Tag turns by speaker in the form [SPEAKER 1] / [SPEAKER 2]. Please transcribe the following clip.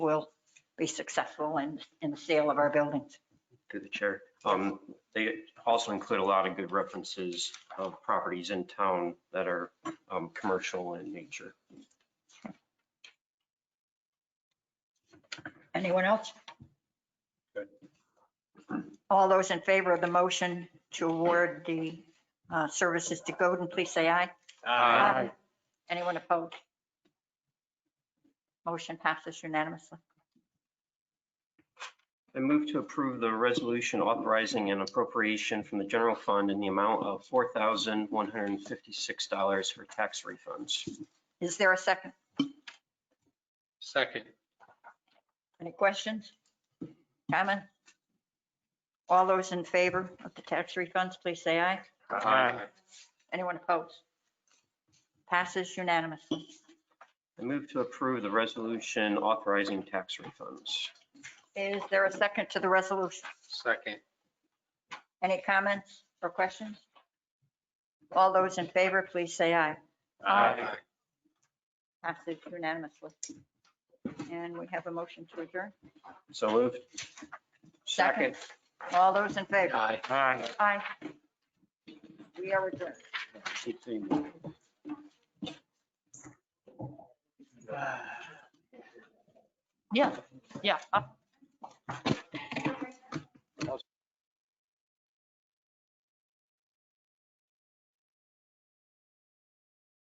[SPEAKER 1] we'll be successful in, in the sale of our buildings.
[SPEAKER 2] through the chair. Um, They also include a lot of good references of properties in town that are um, commercial in nature.
[SPEAKER 1] Anyone else? All those in favor of the motion to award the uh, services to Godin, please say aye.
[SPEAKER 2] Aye.
[SPEAKER 1] Anyone opposed? Motion passes unanimously.
[SPEAKER 2] I move to approve the resolution authorizing an appropriation from the general fund in the amount of $4,156 for tax refunds.
[SPEAKER 1] Is there a second?
[SPEAKER 3] Second.
[SPEAKER 1] Any questions? Comment? All those in favor of the tax refunds, please say aye.
[SPEAKER 3] Aye.
[SPEAKER 1] Anyone opposed? Passes unanimously.
[SPEAKER 2] I move to approve the resolution authorizing tax refunds.
[SPEAKER 1] Is there a second to the resolution?
[SPEAKER 3] Second.
[SPEAKER 1] Any comments or questions? All those in favor, please say aye. Aye. Passes unanimously. And we have a motion to adjourn.
[SPEAKER 2] So moved.
[SPEAKER 1] Second. All those in favor?
[SPEAKER 3] Aye.
[SPEAKER 4] Aye.
[SPEAKER 1] Aye. We are adjourned. Yeah, yeah. up.